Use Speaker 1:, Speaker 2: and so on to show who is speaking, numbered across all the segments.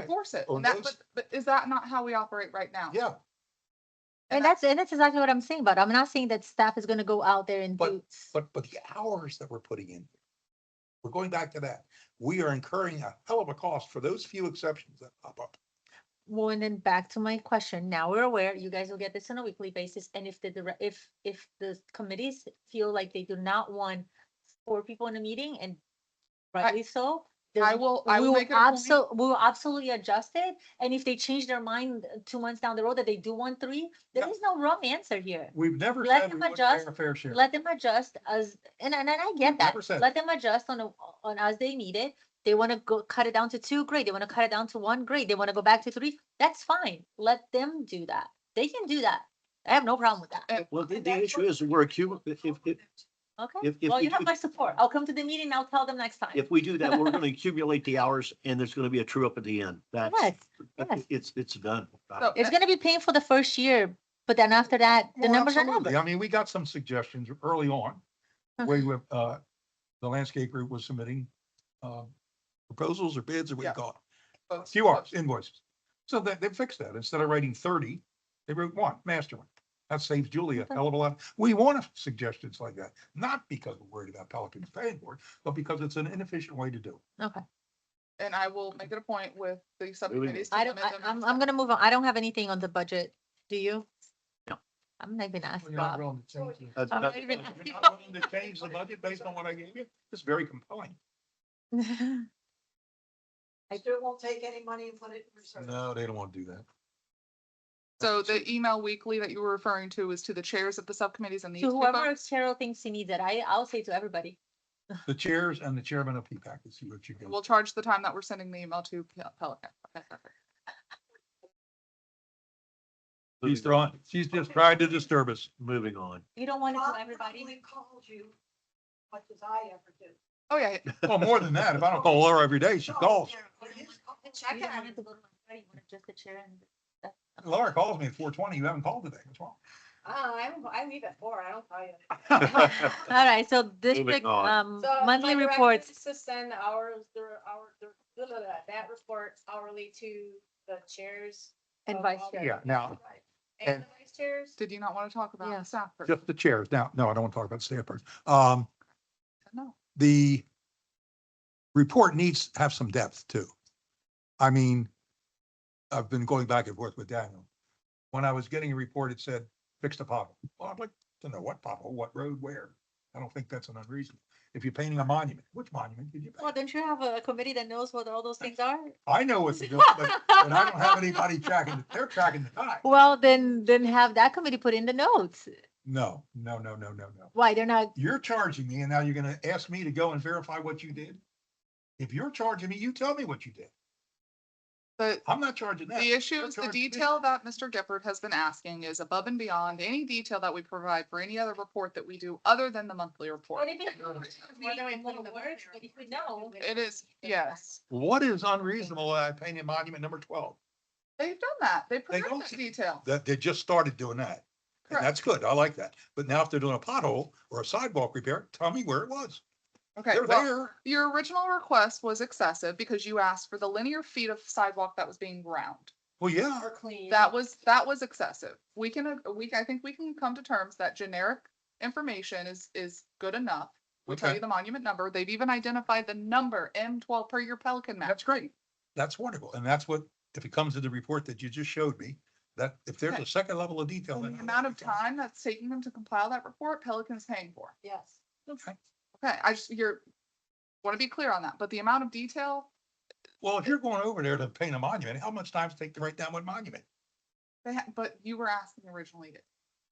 Speaker 1: enforce it.
Speaker 2: On
Speaker 1: And that, but,
Speaker 2: those-
Speaker 1: but is that not how we operate right now?
Speaker 2: Yeah,
Speaker 1: And
Speaker 3: And
Speaker 1: that-
Speaker 3: that's, and that's exactly what I'm saying, but I'm not saying that staff is gonna go out there and
Speaker 2: But-
Speaker 3: do.
Speaker 2: but, but the hours that we're putting in. We're going back to that. We are incurring a hell of a cost for those few exceptions that pop up.
Speaker 3: Well, and then back to my question, now we're aware, you guys will get this on a weekly basis, and if the, dire- if, if the committees feel like they do not want four people in a meeting and rightly so.
Speaker 1: I
Speaker 3: there's-
Speaker 1: will, I
Speaker 3: We
Speaker 1: will
Speaker 3: will
Speaker 1: make it a point.
Speaker 3: absol- we will absolutely adjust it, and if they change their mind uh, two months down the road that they do want three, there
Speaker 2: Yeah.
Speaker 3: is no wrong answer here.
Speaker 4: We've never
Speaker 3: Let
Speaker 4: said
Speaker 3: them
Speaker 4: we wouldn't pay
Speaker 3: adjust,
Speaker 4: our fair share.
Speaker 3: Let them adjust as, and, and and I get that,
Speaker 2: 100%.
Speaker 3: let them adjust on, a- on as they need it. They wanna go, cut it down to two, great, they wanna cut it down to one, great, they wanna go back to three, that's fine, let them do that, they can do that. I have no problem with that,
Speaker 1: And-
Speaker 5: Well, the,
Speaker 1: and
Speaker 5: the
Speaker 1: that's
Speaker 5: issue
Speaker 1: what-
Speaker 5: is we're accumulating, if, if,
Speaker 3: okay?
Speaker 5: if, if,
Speaker 3: Well,
Speaker 5: we
Speaker 3: you have
Speaker 5: do-
Speaker 3: my support, I'll come to the meeting, I'll tell them next time.
Speaker 5: if we do that, we're gonna accumulate the hours and there's gonna be a true up at the end. That's,
Speaker 3: Yes,
Speaker 5: that-
Speaker 3: yes.
Speaker 5: it's, it's done.
Speaker 1: So-
Speaker 3: it's gonna be painful the first year, but then after that, the
Speaker 2: Well,
Speaker 3: numbers are
Speaker 2: absolutely.
Speaker 3: numbers.
Speaker 2: I mean, we got some suggestions early on,
Speaker 3: Uh-huh.
Speaker 2: where you have, uh, the landscape group was submitting, uh, proposals or bids or what
Speaker 1: Yeah.
Speaker 2: you call it.
Speaker 1: both-
Speaker 2: QRs,
Speaker 1: both.
Speaker 2: invoices. So they, they fixed that. Instead of writing thirty, they wrote one, master one. That saves Julie a
Speaker 3: Okay.
Speaker 2: hell of a lot. We want suggestions like that, not because we're worried about Pelican's paying for it, but because it's an inefficient way to do it.
Speaker 3: Okay,
Speaker 1: And I will make it a point with the subcommittees. to
Speaker 3: I don't,
Speaker 1: submit
Speaker 3: I,
Speaker 1: them
Speaker 3: I'm,
Speaker 1: next time.
Speaker 3: I'm gonna move on, I don't have anything on the budget, do you?
Speaker 5: No.
Speaker 3: I'm not even asking.
Speaker 4: We're not willing to change it.
Speaker 5: That's-
Speaker 3: I'm
Speaker 5: that's-
Speaker 3: not even
Speaker 2: If you're not willing to change the budget based on what I gave you, it's very compelling.
Speaker 3: asking.
Speaker 6: I still won't take any money and put it in reserve.
Speaker 2: No, they don't want to do that.
Speaker 1: So the email weekly that you were referring to is to the chairs of the E subcommittees and these
Speaker 3: To
Speaker 1: two
Speaker 3: whoever
Speaker 1: folks?
Speaker 3: Cheryl thinks he needs it, I, I'll say to everybody,
Speaker 2: The chairs and the chairman of PPAC, let's see what you
Speaker 1: We'll
Speaker 2: go.
Speaker 1: charge the time that we're sending the email to Pel- Pelican. Okay, perfect.
Speaker 2: She's throwing, she's just trying to disturb us.
Speaker 5: Moving on.
Speaker 3: you don't want it
Speaker 6: Bob
Speaker 3: to everybody.
Speaker 6: probably called you much as I ever do.
Speaker 1: Oh, yeah. yeah.
Speaker 2: Well, more than that, if I don't call her every day, she
Speaker 7: Oh,
Speaker 2: calls.
Speaker 6: But his call-
Speaker 3: You don't want it to go to everybody, you want it just the chair and.
Speaker 2: Laura calls me at four twenty, you haven't called today, what's wrong?
Speaker 7: Ah,
Speaker 6: Uh, I'm, I leave at four, I don't call you.
Speaker 3: Um, All right, so district,
Speaker 5: on.
Speaker 3: um,
Speaker 7: So
Speaker 3: monthly
Speaker 7: my directive
Speaker 3: reports,
Speaker 7: is To send ours, their, our, their, blah, blah, blah, that report hourly to the chairs.
Speaker 3: And
Speaker 7: of
Speaker 3: vice
Speaker 7: all-
Speaker 3: chair.
Speaker 2: Yeah, now,
Speaker 7: And the vice chairs.
Speaker 1: Did you not want to talk about
Speaker 3: Yeah.
Speaker 1: the staff? person?
Speaker 2: just the chairs. Now, no, I don't want to talk about staff person. Um,
Speaker 1: No.
Speaker 2: the report needs to have some depth too. I mean, I've been going back and forth with Daniel. When I was getting a report, it said fixed a pothole. Well, I'd like to know what pothole, what road, where. I don't think that's an unreasonable. If you're painting a monument, which monument did you
Speaker 3: well,
Speaker 2: paint?
Speaker 3: don't you have a committee that knows what all those things are?
Speaker 2: I know what to do, but, but I don't have anybody tracking, they're tracking the time.
Speaker 3: Well, then, then have that committee put in the notes,
Speaker 2: No, no, no, no, no, no.
Speaker 3: why they're not,
Speaker 2: you're charging me and now you're gonna ask me to go and verify what you did? If you're charging me, you tell me what you did.
Speaker 1: But
Speaker 2: I'm not charging that.
Speaker 1: The issue
Speaker 2: You're
Speaker 1: is the
Speaker 2: charging me.
Speaker 1: detail that Mr. Gifford has been asking is above and beyond any detail that we provide for any other report that we do other than the monthly report.
Speaker 3: what if it's
Speaker 7: Whether I put in the
Speaker 3: words,
Speaker 7: budget or
Speaker 3: but if we
Speaker 7: not,
Speaker 3: know.
Speaker 7: we
Speaker 1: It is, yes.
Speaker 2: What is unreasonable that I painted monument number twelve?
Speaker 1: They've done that. They
Speaker 2: They
Speaker 1: provide
Speaker 2: don't-
Speaker 1: that detail.
Speaker 2: That, they just started doing that. And
Speaker 1: Correct.
Speaker 2: that's good. I like that. But now if they're doing a pothole or a sidewalk repair, tell me where it was.
Speaker 1: Okay,
Speaker 2: They're
Speaker 1: well,
Speaker 2: there.
Speaker 1: your original request was excessive because you asked for the linear feet of sidewalk that was being ground.
Speaker 2: Well, yeah,
Speaker 7: Are clean.
Speaker 1: That was, that was excessive. We can, uh, we, I think we can come to terms that generic information is, is good enough. We tell
Speaker 2: Okay.
Speaker 1: you the monument number. They've even identified the number M twelve per your Pelican map.
Speaker 2: that's great. That's wonderful. And that's what, if it comes to the report that you just showed me, that if there's
Speaker 1: Okay.
Speaker 2: a second level of detail. then
Speaker 1: And the
Speaker 2: I like
Speaker 1: amount of
Speaker 2: it, Tom.
Speaker 1: time that's taking them to compile that report, Pelican's paying for.
Speaker 7: Yes.
Speaker 2: Okay.
Speaker 1: Okay, I just, you're, want to be clear on that, but the amount of detail,
Speaker 2: Well, if you're going over there to paint a monument, how much time does it take to write down one monument?
Speaker 1: they had, but you were asking originally to,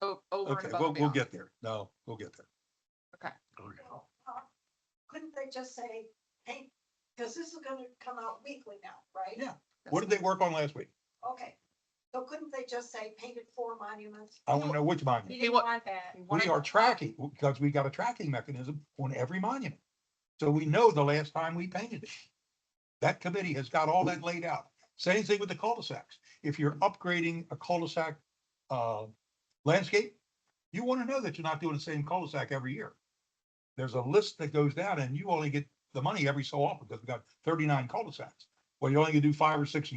Speaker 1: o- over and
Speaker 2: Okay,
Speaker 1: above
Speaker 2: we'll,
Speaker 1: and
Speaker 2: we'll
Speaker 1: beyond.
Speaker 2: get there. No, we'll get there.
Speaker 5: Okay.
Speaker 6: Well, uh, Couldn't they just say, hey, because this is gonna come out weekly now, right?
Speaker 2: Yeah. What did they work on last week?
Speaker 6: Okay, so couldn't they just say painted four monuments?
Speaker 2: I want to know which
Speaker 7: You
Speaker 2: monument.
Speaker 7: didn't
Speaker 1: wa-
Speaker 7: want that.
Speaker 1: You
Speaker 2: We
Speaker 1: wanna-
Speaker 2: are tracking, because we got a tracking mechanism on every monument. So we know the last time we painted it. That committee has got all that laid out. Same thing with the cul-de-sacs. If you're upgrading a cul-de-sac, uh, landscape, you want to know that you're not doing the same cul-de-sac every year. There's a list that goes down and you only get the money every so often because we've got thirty-nine cul-de-sacs. Well, you only can do five or six a